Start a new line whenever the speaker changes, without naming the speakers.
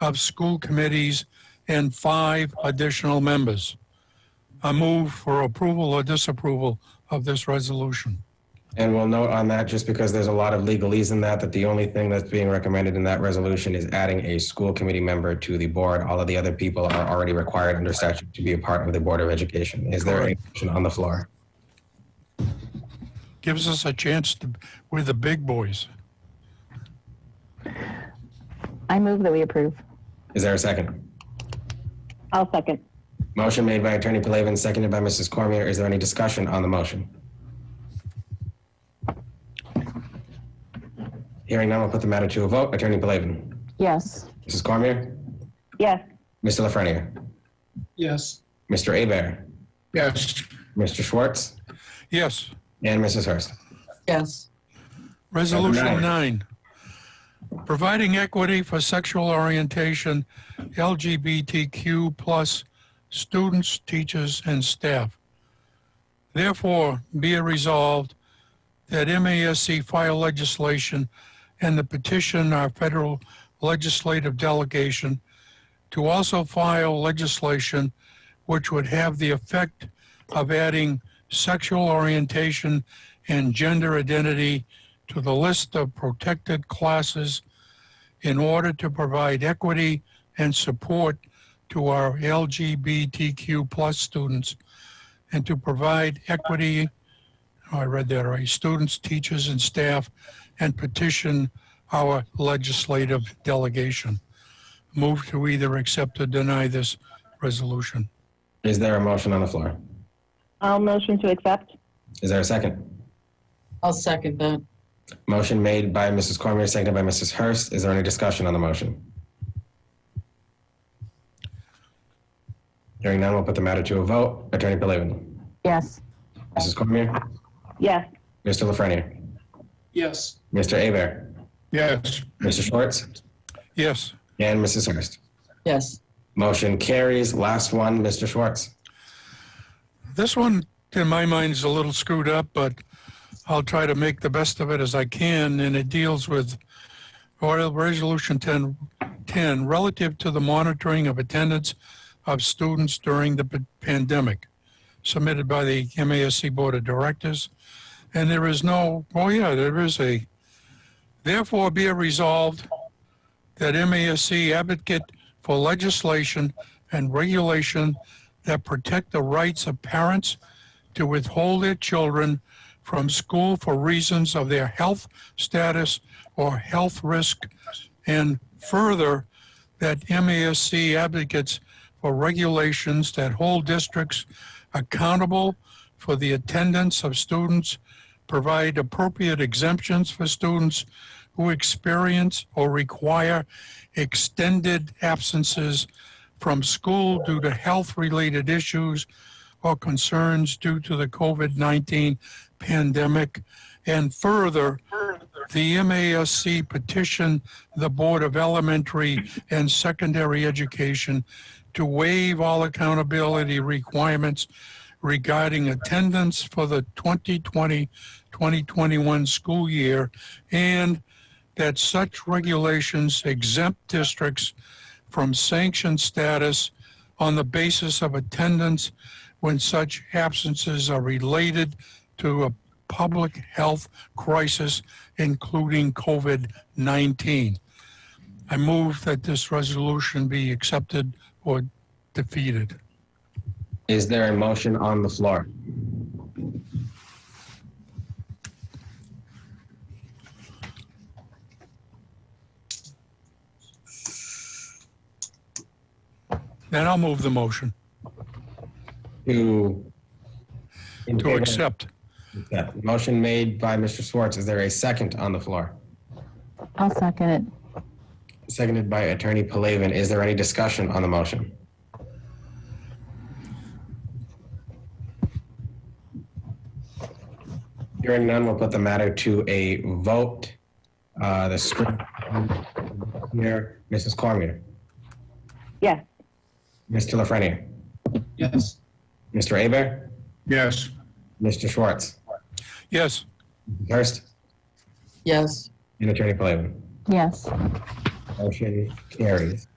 of school committees and five additional members. I move for approval or disapproval of this resolution.
And we'll note on that, just because there's a lot of legalese in that, that the only thing that's being recommended in that resolution is adding a school committee member to the board. All of the other people are already required under statute to be a part of the Board of Education. Is there a motion on the floor?
Gives us a chance to, we're the big boys.
I move that we approve.
Is there a second?
I'll second.
Motion made by Attorney Plavin, seconded by Mrs. Cormier. Is there any discussion on the motion? Hearing none, we'll put the matter to a vote. Attorney Plavin,
Yes.
Mrs. Cormier,
Yes.
Mr. Lafreniere,
yes,
Mr. Abear,
yes,
Mr. Schwartz,
Yes.
and Mrs. Hurst.
yes,
Resolution
Number
nine, providing equity for sexual orientation LGBTQ plus students, teachers, and staff. Therefore, be it resolved that MASC file legislation and the petition our federal legislative delegation to also file legislation which would have the effect of adding sexual orientation and gender identity to the list of protected classes in order to provide equity and support to our LGBTQ plus students and to provide equity, oh, I read that right, students, teachers, and staff, and petition our legislative delegation. Move to either accept or deny this resolution.
Is there a motion on the floor?
I'll motion to accept.
Is there a second?
I'll second that,
Motion made by Mrs. Cormier, seconded by Mrs. Hurst. Is there any discussion on the motion? Hearing none, we'll put the matter to a vote. Attorney Plavin,
Yes.
Mrs. Cormier,
Yes.
Mr. Lafreniere,
yes,
Mr. Abear,
yes,
Mr. Schwartz,
Yes,
and Mrs. Hurst.
yes,
Motion carries. Last one, Mr. Schwartz.
this one in my mind is a little screwed up, but I'll try to make the best of it as I can, and it deals with Oil Resolution 10, 10 relative to the monitoring of attendance of students during the p- pandemic, submitted by the MASC Board of Directors. And there is no, oh yeah, there is a, therefore be it resolved that MASC advocate for legislation and regulation that protect the rights of parents to withhold their children from school for reasons of their health status or health risk, and further, that MASC advocates for regulations that hold districts accountable for the attendance of students, provide appropriate exemptions for students who experience or require extended absences from school due to health-related issues or concerns due to the COVID-19 pandemic. And further, the MASC petitioned the Board of Elementary and Secondary Education to waive all accountability requirements regarding attendance for the 2020-2021 school year and that such regulations exempt districts from sanction status on the basis of attendance when such absences are related to a public health crisis, including COVID-19. I move that this resolution be accepted or defeated.
Is there a motion on the floor?
Then I'll move the motion
To in
to
favor?
accept.
Yeah. Motion made by Mr. Schwartz. Is there a second on the floor?
I'll second it.
Seconded by Attorney Plavin. Is there any discussion on the motion? Hearing none, we'll put the matter to a vote. Uh, The screen here, Mrs. Cormier,
Yes.
Mr. Lafreniere,
yes,
Mr. Aber,
yes,
Mr. Schwartz,
Yes,
Hurst,
yes,
and Attorney Plavin.
Yes.
Motion carries.